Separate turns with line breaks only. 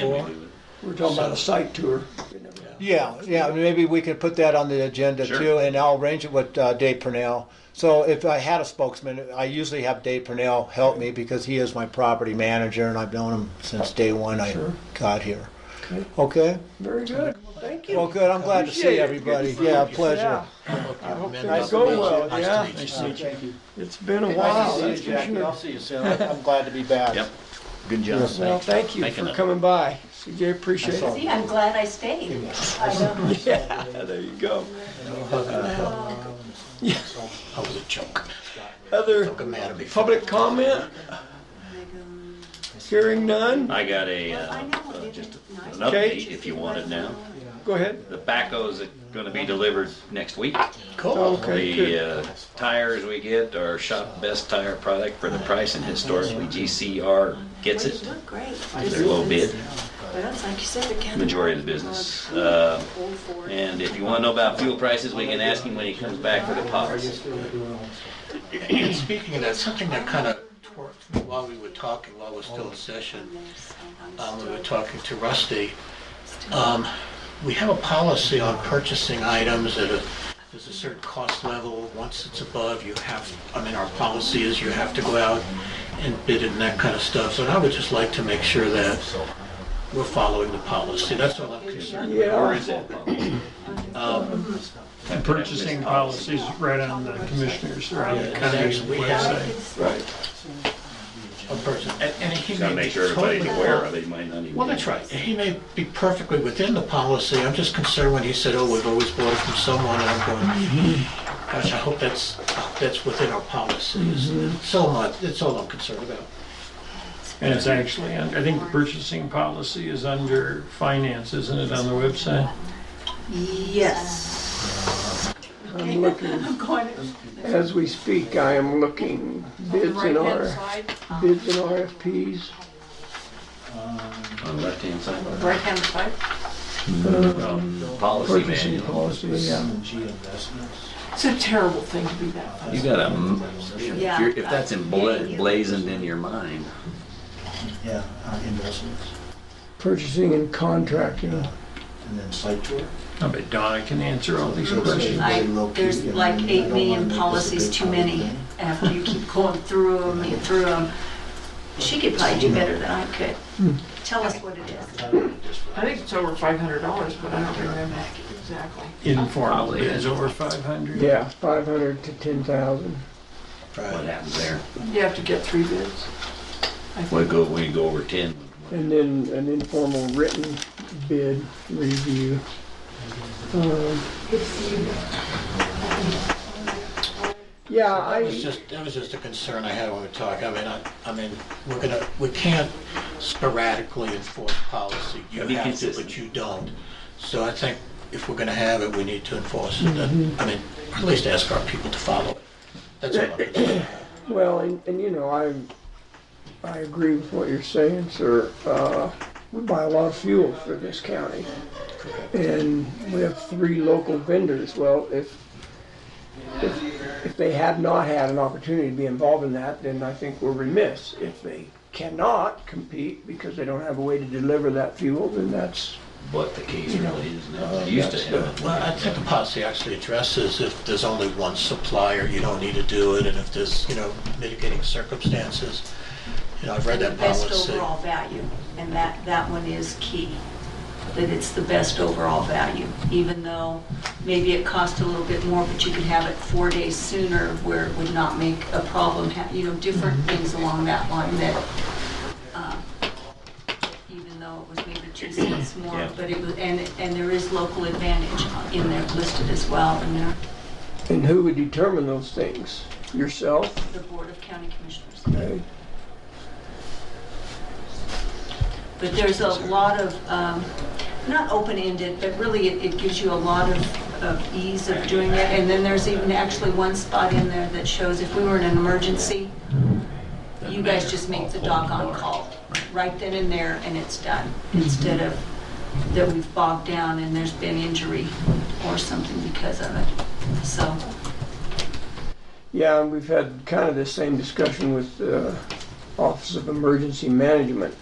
Four.
We're talking about a site tour.
Yeah, yeah, maybe we could put that on the agenda
Sure.
too, and I'll arrange it with uh, Dave Purnell. So if I had a spokesman, I usually have Dave Purnell help me because he is my property manager, and I've known him since day one I
Sure.
got here.
Okay.
Okay.
Very good. Well, thank you.
Well, good. I'm glad to
Appreciate
see
it.
everybody. Yeah, pleasure.
Yeah.
I hope
Nice go well, yeah.
Nice to meet you.
It's been a while, that's for sure.
see you soon. I'm glad to be back.
Yep.
Good job.
Well, thank you
Thank you.
for coming by. CJ, appreciate it.
See, I'm glad I stayed. I know.
Yeah, there you go.
I was a chunk.
Other
Took him out of me.
public comment? Hearing none?
I got a, uh,
I know,
uh,
didn't
just
it?
an
Nice.
update if you want it now.
Go ahead.
The backhoes are gonna be delivered next week.
Cool.
Oh, Okay, good.
The uh, tires we get are shop best tire product for the price and historically GCR gets
Well, you
it.
look great.
They're low bid,
But it's like you said, the county.
majority of the business. Uh, And if you wanna know about fuel prices, we can ask him when he comes back for the pots.
And Speaking of that, something that kind of twerked me while we were talking, while we're still in session, um, we were talking to Rusty. Um, we have a policy on purchasing items at a, there's a certain cost level. Once it's above, you have, I mean, our policy is you have to go out and bid it and that kind of stuff. So I would just like to make sure that we're following the policy. That's all I'm concerned with.
Where
Yeah,
is that?
Um,
Purchasing policies right on the commissioners, or on the
Yeah.
county
We have-
website.
Right.
a person, and, and he may
Gotta
be
make sure everybody's
totally
aware
wrong.
of it, you might not even.
Well, that's right. He may be perfectly within the policy. I'm just concerned when he said, oh, we've always bought it from someone, and I'm going, gosh, I hope that's, I hope that's within our policies.
Mm-hmm.
So much, that's all I'm concerned about.
And it's actually, un- I think the purchasing policy is under finance, isn't it, on the website?
Yes.
I'm looking,
I'm going to
as we speak, I am looking bids and R, bids and RFPs.
On the left-hand side,
right hand side.
policy
Purchasing
manual.
policy, yeah.
It's a terrible thing to be that.
You got to,
Yeah.
if that's embla- blazoned in your mind,
Yeah, uh, investments,
Purchasing and contracting.
and then site tour.
I bet Donna can answer all these questions.
I, there's like eight million policies too many. After you keep going through them and through them, she could probably do better than I could. Tell us what it is.
I think it's over five hundred dollars, but I don't remember exactly.
Informal bids over 500.
Yeah, five hundred to ten thousand.
What happens there?
You have to get three bids. I
We
think
go, we go over ten.
And then an informal written bid review. Um, Yeah,
That was
I,
just, that was just a concern I had when we were talking. I mean, I, I mean, we're gonna, we can't sporadically enforce policy. You
Be
have to,
consistent.
but you don't. So I think if we're gonna have it, we need to enforce it. I mean, at least ask our people to follow it. That's all I'm concerned about.
well, and, and you know, I, I agree with what you're saying, sir. Uh, we buy a lot of fuel for this county. And we have three local vendors. Well, if, if, if they have not had an opportunity to be involved in that, then I think we're remiss. If they cannot compete because they don't have a way to deliver that fuel, then that's,
What the case really is
Uh,
now, They used to have.
Well, I think the policy actually addresses if there's only one supplier, you don't need to do it, and if there's, you know, mitigating circumstances. You know, I've read
And the
that
best
policy.
overall value, and that, that one is key, that it's the best overall value, even though maybe it cost a little bit more, but you could have it four days sooner where it would not make a problem, ha- you know, different things along that line that, uh, even though it was maybe two cents
Yeah.
more, but it was, and, and there is local advantage in there listed as well, in there,
and who would determine those things? Yourself?
the Board of County Commissioners.
Okay.
But there's a lot of, um, not open-ended, but really it it gives you a lot of of ease of doing it. And then there's even actually one spot in there that shows if we were in an emergency, you guys just make the doggone call, right then and there, and it's done. Instead of that we've bogged down and there's been injury or something because of it. So,
Yeah, and we've had kind of the same discussion with the Office of uh, Emergency Management.